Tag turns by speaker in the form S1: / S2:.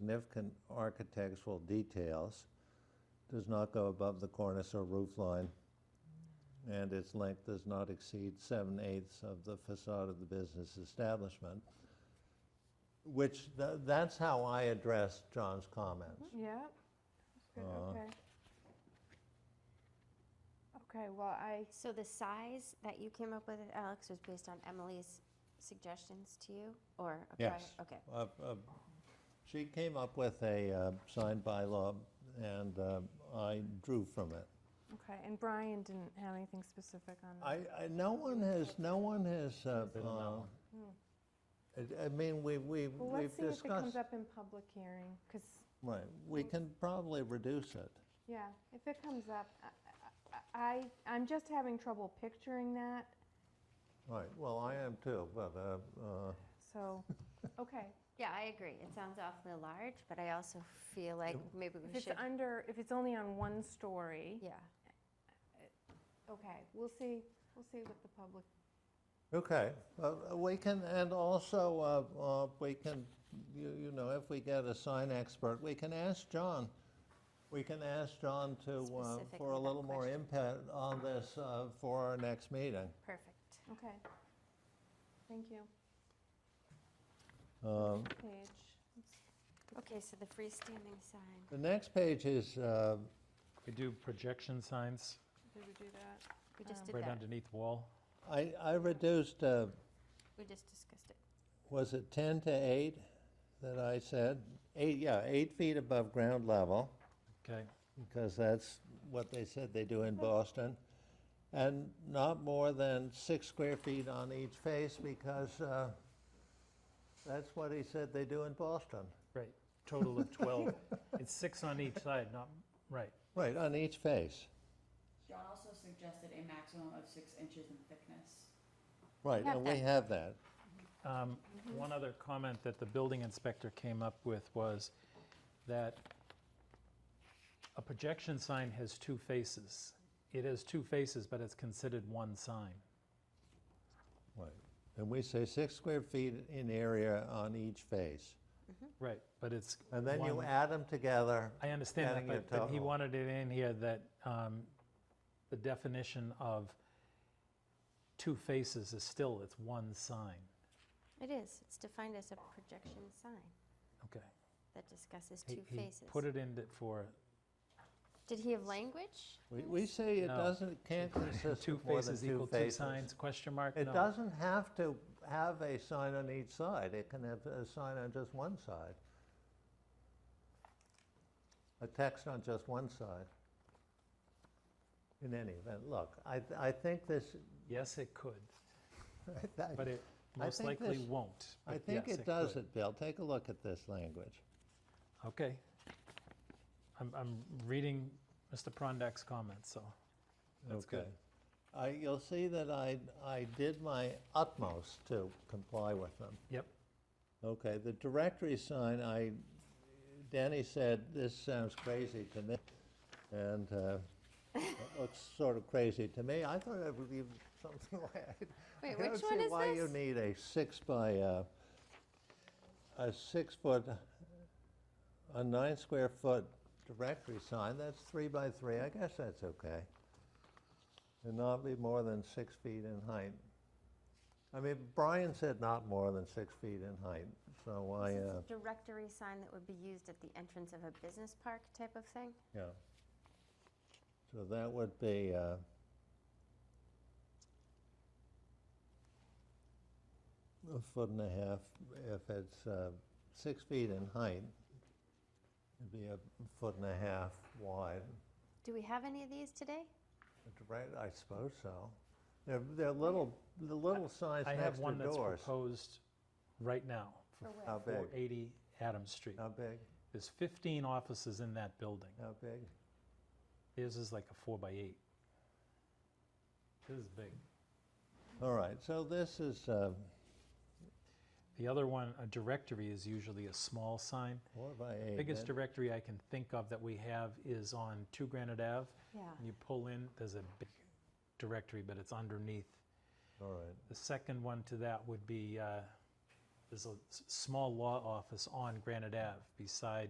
S1: significant architectural details, does not go above the cornice or roof line, and its length does not exceed seven-eighths of the facade of the business establishment, which, tha- that's how I addressed John's comments.
S2: Yeah. Good,
S1: Uh,
S2: Okay. Okay, well, I,
S3: So the size that you came up with, Alex, was based on Emily's suggestions to you, or? a prior-
S1: Yes.
S3: Okay,
S1: Uh, uh, She came up with a uh, signed bylaw, and uh, I drew from it.
S2: okay, and Brian didn't have anything specific on that.
S1: I, I, no one has, no one has, uh, uh, I I mean, we, we,
S2: Well,
S1: we've
S2: let's see if it comes
S1: discussed,
S2: up in public hearing, because,
S1: right, we can probably reduce it.
S2: yeah, if it comes up, I- I- I, I'm just having trouble picturing that,
S1: Right, well, I am too, but, uh, uh,
S2: so, okay.
S3: yeah, I agree. It sounds awfully large, but I also feel like maybe
S2: If
S3: we
S2: it's
S3: should,
S2: under, if it's only on one story,
S3: yeah.
S2: okay, we'll see, we'll see what the public,
S1: okay, Uh, we can, and also, uh, uh, we can, you, you know, if we get a sign expert, we can ask John, we can ask John to, uh, for
S3: Specifically
S1: a
S3: that
S1: little more
S3: question.
S1: input on this uh, for our next meeting.
S3: Perfect.
S2: okay. Thank you.
S1: Um,
S2: Page.
S3: Okay, so the freestanding sign.
S1: The next page is uh,
S4: We do projection signs
S2: Did we do that?
S3: We just did
S4: right
S3: that.
S4: underneath wall.
S1: I, I reduced, uh,
S3: We just discussed it.
S1: was it 10 to 8 that I said? Eight, yeah, eight feet above ground level,
S4: Okay,
S1: because that's what they said they do in Boston. And not more than six square feet on each face, because uh, that's what he said they do in Boston.
S4: right. Total of 12. It's six on each side, not, right.
S1: Right, on each face.
S5: John also suggested a maximum of six inches in thickness.
S1: Right,
S3: Have
S1: and we
S3: that.
S1: have that.
S4: Um,
S3: Mm-hmm.
S4: One other comment that the building inspector came up with was that a projection sign has two faces. It has two faces, but it's considered one sign.
S1: Right. And we say six square feet in area on each face.
S4: Right, but it's.
S1: And then you
S4: one-
S1: add them together.
S4: I understand
S1: adding your
S4: that, but- but he
S1: total.
S4: wanted it in here that um, the definition of two faces is still, it's one sign.
S3: It is. It's defined as a projection sign
S4: Okay.
S3: that discusses
S4: He-
S3: two
S4: he
S3: faces.
S4: Put it in it for,
S3: Did he have language?
S1: We, we say it
S4: No.
S1: doesn't, can't consist
S4: two
S1: of more than
S4: faces
S1: two
S4: equal two
S1: faces.
S4: signs, question mark?
S1: It
S4: No.
S1: doesn't have to have a sign on each side, it can have a sign on just one side. A text on just one side. In any event, look, I, I think this,
S4: Yes, it could, but
S1: I
S4: it most
S1: think
S4: likely
S1: this-
S4: won't. but
S1: think
S4: yes,
S1: it does
S4: could.
S1: it, Bill, take a look at this language.
S4: Okay. I'm, I'm reading Mr. Prondak's comments, so that's
S1: Okay.
S4: good.
S1: I, you'll see that I, I did my utmost to comply with them.
S4: Yep,
S1: Okay, the directory sign, I, Danny said, this sounds crazy to me, and uh, it looks sort of crazy to me. I thought it would be something like. I
S3: Wait,
S1: don't
S3: which one
S1: see
S3: is
S1: why you
S3: this?
S1: need a six by, uh, a six-foot, a nine-square-foot directory sign, that's three by three, I guess that's okay. And not be more than six feet in height. I mean, Brian said not more than six feet in height, so I,
S3: This is
S1: uh,
S3: a directory sign that would be used at the entrance of a business park type of thing?
S1: yeah. So that would be, uh, a foot and a half, if it's uh, six feet in height, it'd be a foot and a half wide.
S3: Do we have any of these today?
S1: Right, I suppose so. They're, they're little, the little signs
S4: I
S1: next
S4: have
S1: to
S4: one that's
S1: doors.
S4: proposed right now for
S1: How big?
S4: 480 Adams Street.
S1: How big?
S4: There's 15 offices in that building.
S1: How big?
S4: Theirs is like a four by eight. This is big.
S1: All right, so this is, uh,
S4: The other one, a directory, is usually a small sign.
S1: four by eight.
S4: Biggest
S1: that-
S4: directory I can think of that we have is on Two Granite Ave.
S3: Yeah.
S4: And you pull in, there's a big directory, but it's underneath.
S1: All right.
S4: The second one to that would be uh, there's a s- small law office on Granite Ave beside